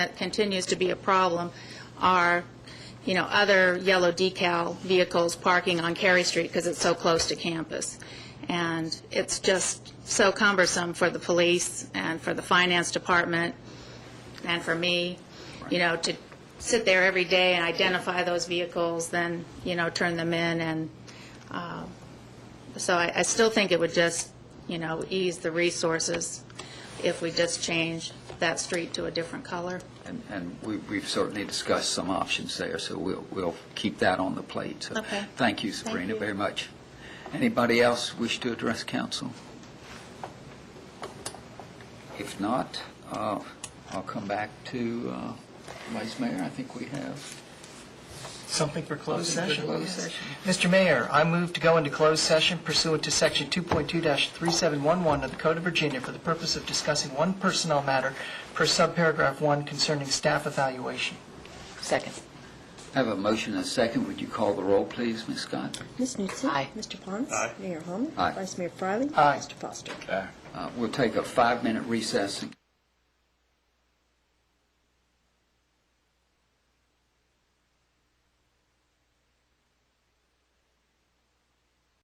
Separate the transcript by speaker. Speaker 1: that continues to be a problem are, you know, other yellow decal vehicles parking on Carey Street because it's so close to campus. And it's just so cumbersome for the police and for the finance department and for me, you know, to sit there every day and identify those vehicles, then, you know, turn them in. And um, so I I still think it would just, you know, ease the resources if we just change that street to a different color.
Speaker 2: And, and we- we've certainly discussed some options there, so we'll, we'll keep that on the plate. So
Speaker 1: Okay.
Speaker 2: Thank you, Sabrina,
Speaker 1: you.
Speaker 2: very much. Anybody else wish to address council? If not, uh, I'll come back to uh, Vice Mayor. I think we have
Speaker 3: Something for closed
Speaker 2: Something for
Speaker 3: session?
Speaker 2: closed
Speaker 3: Yes.
Speaker 2: session.
Speaker 3: Mr. Mayor, I move to go into closed session pursuant to Section 2.2-3711 of the Code of Virginia for the purpose of discussing one personnel matter per subparagraph 1 concerning staff evaluation.
Speaker 4: Second.
Speaker 2: I have a motion and a second. Would you call the roll, please, Ms. Scott?
Speaker 5: Ms. Newton.
Speaker 4: Aye.
Speaker 5: Mr. Pons. Mayor Holman.
Speaker 2: Aye.
Speaker 5: Vice Mayor Fryling.
Speaker 3: Aye.
Speaker 5: Mr. Foster.
Speaker 2: Uh, We'll take a five-minute recess and